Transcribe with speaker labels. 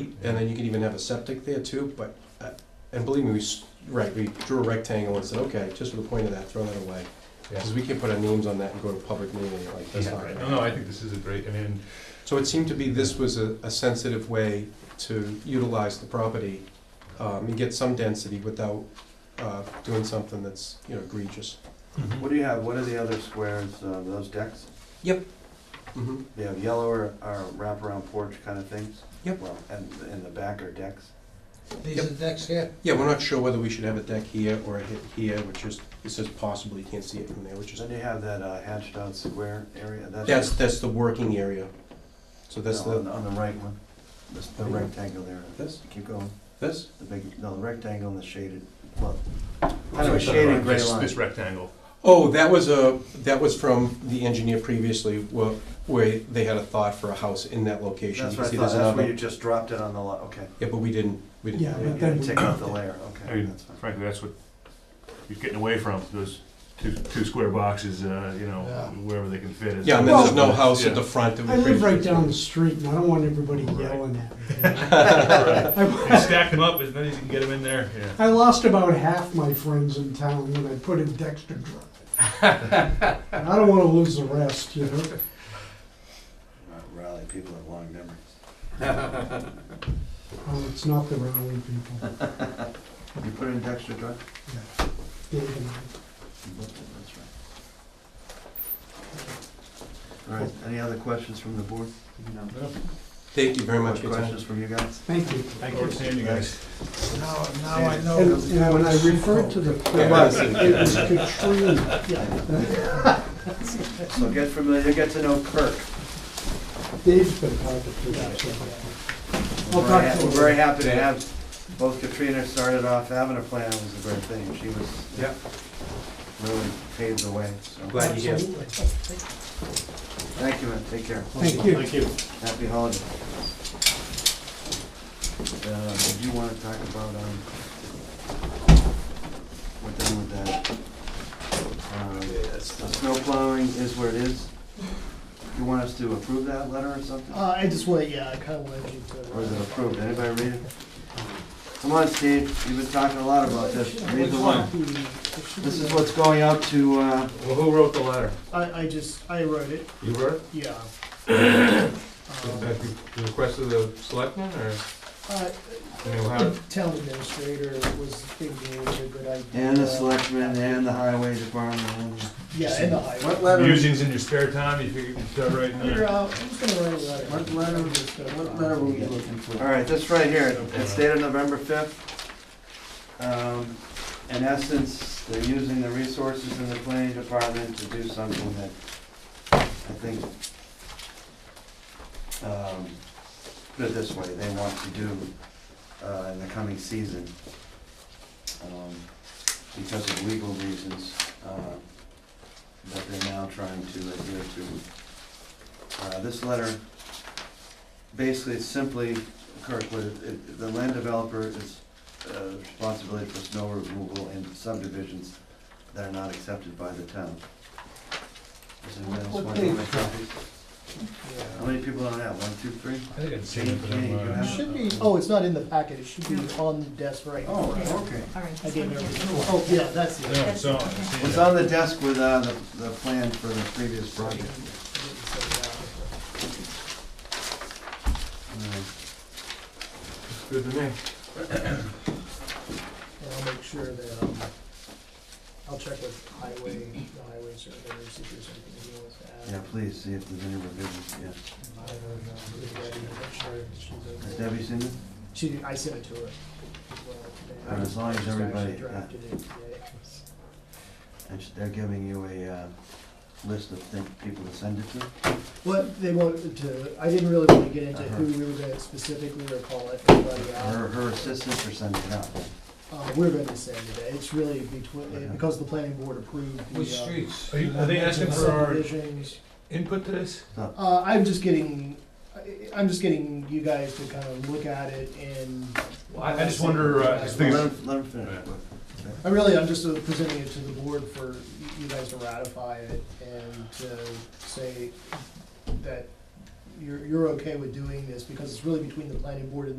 Speaker 1: and then you could even have a septic there too, but, uh, and believe me, we, s- right, we drew a rectangle and said, okay, just for the point of that, throw that away. Because we can't put our names on that and go to public meeting, like, that's
Speaker 2: Yeah,
Speaker 1: not
Speaker 2: right.
Speaker 1: right.
Speaker 2: No, no, I think this is a great, I mean,
Speaker 1: So it seemed to be this was a, a sensitive way to utilize the property, um, and get some density without, uh, doing something that's, you know, egregious.
Speaker 2: Mm-hmm.
Speaker 3: What do you have, what are the other squares, uh, those decks?
Speaker 1: Mhm.
Speaker 3: You have yellow or, or wraparound porch kind of things?
Speaker 1: Yep.
Speaker 3: Well, and, and the back are decks?
Speaker 4: These are the decks here?
Speaker 1: Yeah, we're not sure whether we should have a deck here or a hit here, which is, it says possibly, you can't see it from there, which is,
Speaker 3: Then you have that uh, hatched out square area, that's.
Speaker 1: that's, that's the working area. So that's
Speaker 3: No, On,
Speaker 1: the,
Speaker 3: the- on the right one, This- the rectangle area.
Speaker 1: This?
Speaker 3: Keep going,
Speaker 1: this,
Speaker 3: the big, no, the rectangle and the shaded, well, kind
Speaker 2: so
Speaker 3: of a
Speaker 2: it's
Speaker 3: shaded
Speaker 2: not
Speaker 3: gray
Speaker 2: this-
Speaker 3: line.
Speaker 2: This rectangle.
Speaker 1: oh, that was a, that was from the engineer previously, where, where they had a thought for a house in that location.
Speaker 3: That's
Speaker 1: You
Speaker 3: what I
Speaker 1: see
Speaker 3: thought,
Speaker 1: there's
Speaker 3: that's where
Speaker 1: another-
Speaker 3: you just dropped it on the lot, okay.
Speaker 1: Yeah, but we didn't, we didn't
Speaker 4: Yeah,
Speaker 1: have
Speaker 3: You
Speaker 1: it.
Speaker 4: but then
Speaker 3: didn't take out the layer,
Speaker 2: I
Speaker 3: okay,
Speaker 2: mean,
Speaker 3: that's fine.
Speaker 2: frankly, that's what you're getting away from, those two, two square boxes, uh, you know,
Speaker 4: Yeah.
Speaker 2: wherever they can fit. is-
Speaker 1: Yeah, and then there's no house
Speaker 2: Yeah.
Speaker 1: at the front. that we
Speaker 4: I live
Speaker 1: could-
Speaker 4: right down the street, and I don't want everybody yelling at me.
Speaker 2: Right. You
Speaker 4: I-
Speaker 2: stack them up as many as you can get them in there, yeah.
Speaker 4: I lost about half my friends in town when I put in Dexter Drive. And I don't wanna lose the rest, you know?
Speaker 3: Uh, Rally, people have long memories.
Speaker 4: Well, it's not the Rowley people.
Speaker 3: You put in Dexter Drive?
Speaker 4: Yeah. Dave and I.
Speaker 3: That's right. All right, any other questions from the board? No.
Speaker 1: Thank you very much. for your time.
Speaker 3: Questions from you guys?
Speaker 4: Thank you.
Speaker 2: Thank you. Seeing you guys.
Speaker 5: Now, now I
Speaker 3: Oh,
Speaker 5: know.
Speaker 4: And and when I referred to the,
Speaker 1: Yeah, I see.
Speaker 4: it was Katrina.
Speaker 3: So get familiar, get to know Kirk.
Speaker 4: Dave's been hard to figure
Speaker 3: We're
Speaker 4: I'll
Speaker 3: very
Speaker 4: talk
Speaker 3: ha-
Speaker 4: to
Speaker 3: we're
Speaker 4: him.
Speaker 3: very happy to have, both Katrina started off having a plan, it was a great thing, she was.
Speaker 1: Yep.
Speaker 3: Really paved the way, so.
Speaker 1: Glad you're here.
Speaker 4: out.
Speaker 3: Thank you, and take care.
Speaker 4: Thank you.
Speaker 2: Thank you.
Speaker 3: Happy holiday. Uh, did you wanna talk about, um, we're done with that. Um, The snow plowing is where it is. You want us to approve that letter or something?
Speaker 5: Uh, I just want, yeah, I kinda wanted you
Speaker 3: Or is it
Speaker 5: to.
Speaker 3: approved? Anybody read it? Come on, Steve, you've been talking a lot about this. Read the one.
Speaker 5: Hmm.
Speaker 3: This is what's going out to, uh,
Speaker 6: Well, who wrote the letter?
Speaker 5: I, I just, I wrote it,
Speaker 6: You wrote it?
Speaker 5: yeah.
Speaker 6: Was
Speaker 5: Um,
Speaker 6: that the request of the selectmen, or,
Speaker 5: uh,
Speaker 6: I mean, how,
Speaker 5: The town administrator was thinking it was a good idea.
Speaker 3: and the selectmen, and the highway department. and-
Speaker 5: Yeah, and the highway.
Speaker 3: What letter,
Speaker 2: Musings in your spare time, you figure you can start writing
Speaker 5: I
Speaker 2: there.
Speaker 5: wrote- I'm just gonna write a letter.
Speaker 3: What letter-
Speaker 5: I'm just gonna-
Speaker 3: what letter were you looking
Speaker 6: for?
Speaker 3: all right, this right here, it's dated November fifth. Um, in essence, they're using the resources in the planning department to do something that I think, um, put it this way, they want to do, uh, in the coming season. Um, because of legal reasons, uh, that they're now trying to adhere to. Uh, this letter, basically, it's simply, Kirk, what it- it, the land developer is, uh, responsibility for snow removal in subdivisions that are not accepted by the town. Does anyone else want to make copies? How
Speaker 5: Yeah.
Speaker 3: many people don't have, one, two, three?
Speaker 2: I think I'd
Speaker 3: seen it, but I'm, uh,
Speaker 5: It should be, oh, it's not in the packet, it should be on the desk right
Speaker 3: Oh,
Speaker 5: now.
Speaker 3: okay.
Speaker 7: All right.
Speaker 5: I
Speaker 7: this
Speaker 5: gave
Speaker 7: one here.
Speaker 5: everything. Oh, yeah, that's it.
Speaker 2: No, so, I see
Speaker 3: It's
Speaker 2: that.
Speaker 3: on the desk with, uh, the, the plan for the previous project. Uh,
Speaker 6: it's good to me.
Speaker 5: And I'll make sure that, um, I'll check with highway, the highway surveyor, see if there's anything he wants to
Speaker 3: Yeah,
Speaker 5: add.
Speaker 3: please, see if there's any revisions, yeah.
Speaker 5: I don't know, if Debbie- I'm sure she's
Speaker 3: Has
Speaker 5: okay.
Speaker 3: Debbie seen it?
Speaker 5: She, I sent it to her. as well today.
Speaker 3: All right, as long as
Speaker 5: Just actually
Speaker 3: everybody, yeah.
Speaker 5: drafted it today.
Speaker 3: And sh- they're giving you a, uh, list of things, people to send it to?
Speaker 5: Well, they wanted to, I didn't really want to get into
Speaker 3: Uh-huh.
Speaker 5: who we were gonna specifically or call everybody
Speaker 3: Her,
Speaker 5: out.
Speaker 3: her assistants are sending it out.
Speaker 5: Uh, we're gonna send it, it's really between,
Speaker 3: Uh-huh.
Speaker 5: because the planning board approved the.
Speaker 6: Which
Speaker 5: uh,
Speaker 6: streets?
Speaker 2: Are you- are they asking for our
Speaker 5: subdivisions.
Speaker 6: Input to this?
Speaker 5: Uh, I'm just getting, I- I'm just getting you guys to kind of look at it and
Speaker 2: Well, I, I just wonder, uh, just
Speaker 3: Let
Speaker 2: think,
Speaker 3: him, let him finish.
Speaker 5: I really, I'm just uh, presenting it to the board for you guys to ratify it and to say that you're, you're okay with doing this because it's really between the planning board and